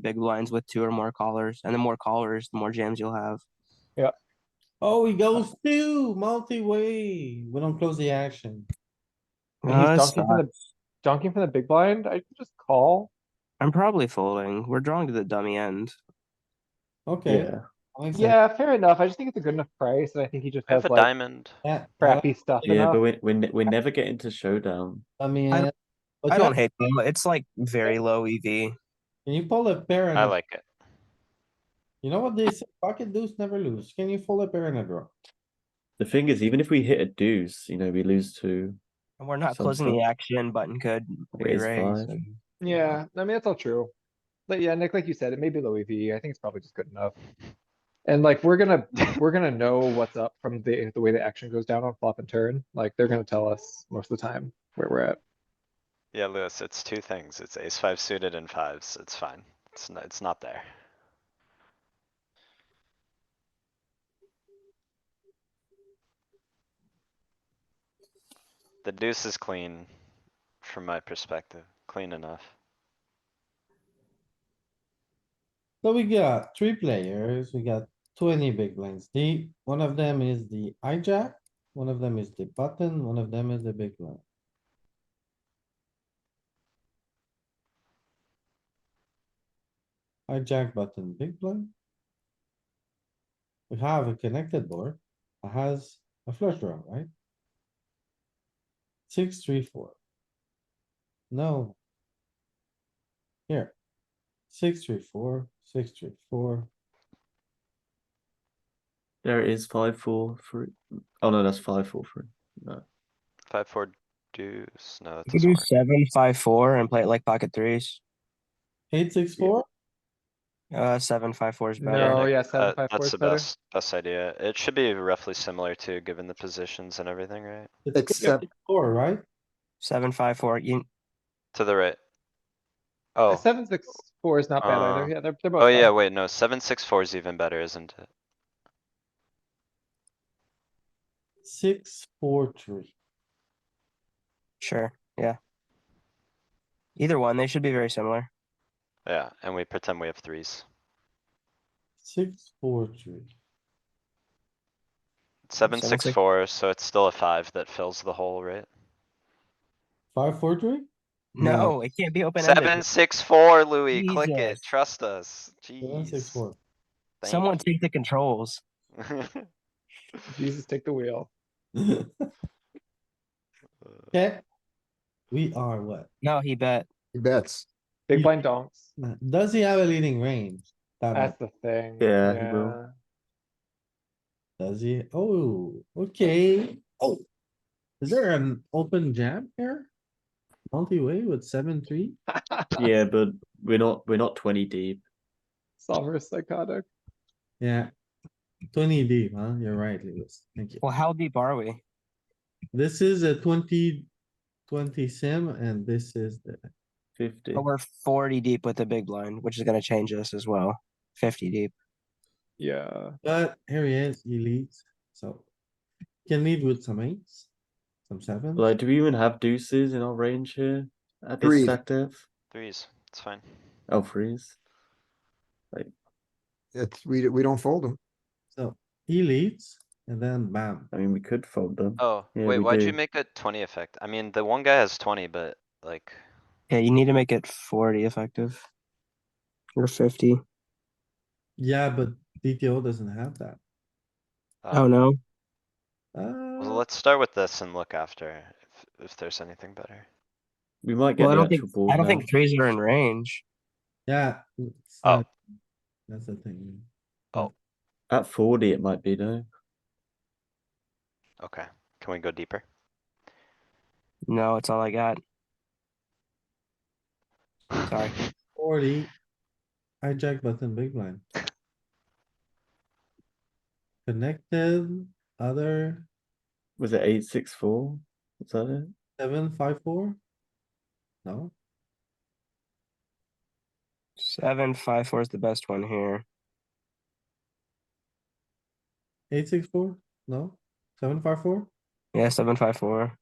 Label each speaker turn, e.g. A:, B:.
A: big blinds with two or more callers, and the more callers, the more jams you'll have.
B: Oh, he goes two, multi-way. We don't close the action.
C: And
A: No,
C: he's
A: it's
C: dunking from Uh, the, dunking from the big blind, I could just call.
A: I'm probably folding. We're drawing to the dummy end.
B: Okay. that makes sense.
C: Yeah, fair enough. I just think it's a good enough price and I think he just
D: I
C: has
D: have a
C: like
D: diamond.
B: Yeah.
C: crappy stuff
E: Yeah, but
C: enough.
E: we we ne- we never get into showdown.
B: I mean.
A: I don't-
B: but
A: I
B: you-
A: don't hate them. It's like very low E EV.
B: Can you pull a pair? and
D: I
C: Mm-hmm.
B: a-
D: like it.
B: You know what they say, pocket deuce never lose. Can you fold a pair and a draw?
E: The thing is, even if we hit a deuce, you know, we lose two.
A: And we're not
E: Sounds
A: closing
E: good.
A: the action. Button could
E: Raise
A: re-raise.
E: five.
A: and-
C: Yeah, I mean, that's all true. But yeah, Nick, like you said, it may be low EV. I think it's probably just good enough. And like, we're gonna, we're gonna know what's up from the, the way the action goes down on flop and turn. Like, they're gonna tell us most of the time where we're at.
D: Yeah, Lewis, it's two things. It's ace five suited and fives. It's fine. It's not, it's not there. The deuce is clean from my perspective, clean enough.
B: So we got three players, we got twenty big blinds deep. One of them is the hijack, one of them is the button, one of them is the big blind. Hijack button, big blind. We have a connected board that has a flush draw, right? Six, three, four. No. Here. Six, three, four, six, three, four.
E: There it is, five, four, three. Oh no, that's five, four, three.
D: Five, four deuce, no, that
A: You could
D: doesn't
A: do
D: work.
A: seven, five, four, and play it like pocket threes.
B: Eight, six, four.
A: Uh, seven, five, four is better.
C: No,
D: Nick,
C: yeah, seven,
D: Uh,
C: five, four
D: that's
C: is
D: the
C: better.
D: best, best idea. It should be roughly similar to, given the positions and everything, right?
B: It's
E: It's,
B: six, six, four, right?
A: Seven, five, four. You,
D: To the right.
C: Uh,
D: Oh.
C: Seven, six, four is not bad
D: Uh,
C: either. Yeah, they're, they're both.
D: Oh yeah,
C: fine.
D: wait, no, seven, six, four is even better, isn't it?
B: Six, four, three.
A: sure. Yeah. Either one. They should be very similar.
D: Yeah, and we pretend we have threes.
B: Six, four, three.
D: Seven,
A: Seven,
D: six,
A: six-
D: four, so it's still a five that fills the hole, right?
B: Five, four, three?
A: No, it can't be open
D: Seven,
A: ended.
D: six, four, Louis, click
A: Jesus.
D: it, trust us,
B: Seven, six,
D: jeez.
B: four.
D: thank
A: Someone
D: you.
A: take the controls.
C: Jesus, take the wheel.
B: Okay. We are what?
A: No, he bet.
F: He bets.
C: Big
B: Yeah.
C: blind donks.
B: Does he have a leading range? That
C: That's
B: much.
C: the thing.
E: Yeah, he will.
B: Does he? Oh, okay. Oh. Is there an open jam here? Multi-way with seven, three?
E: yeah, but we're not we're not twenty deep.
C: Solver is psychotic.
B: Yeah. Twenty deep, huh? You're right, Lewis. Thank you.
A: Well, how deep are we?
B: This is a twenty, twenty sim and this is the,
E: Fifty.
A: But we're 40 deep with the big blind, which is going to change us as well. 50 deep.
C: Yeah.
B: but here he is, he leads, so. Can lead with some eights, some sevens.
E: Like, do we even have deuces in our range here at this
F: Threes.
E: stack depth?
D: Threes, it's fine.
E: Oh, threes.
F: It's, we, we don't fold him.
B: so he leads and then bam.
E: I mean, we could fold them.
D: Oh,
E: Yeah,
D: wait,
E: we
D: why'd you
E: do.
D: make a twenty effect? I mean, the one guy has twenty, but like,
A: Yeah, you need to make it 40 effective. Or 50.
B: Yeah, but DTO doesn't have that.
A: Oh,
D: uh,
A: no.
D: well,
B: Uh,
D: let's start with this and look after if, if there's anything better.
E: We might get
A: Well, I
E: the
A: don't
E: actual
A: think
E: board
A: I don't
E: now.
A: think threes are in range.
B: yeah. it's
D: Oh.
B: not- That's the thing.
E: at forty it might be though.
D: Okay, can we go deeper?
A: No, it's all I got. Sorry.
B: Forty. Hijack button, big blind. Connected, other,
E: Was it eight six four? Is that it?
B: seven, five, four? No?
A: Seven five four is the best one here.
B: Eight, six, four? No? Seven, five, four?
A: Yeah, seven five four.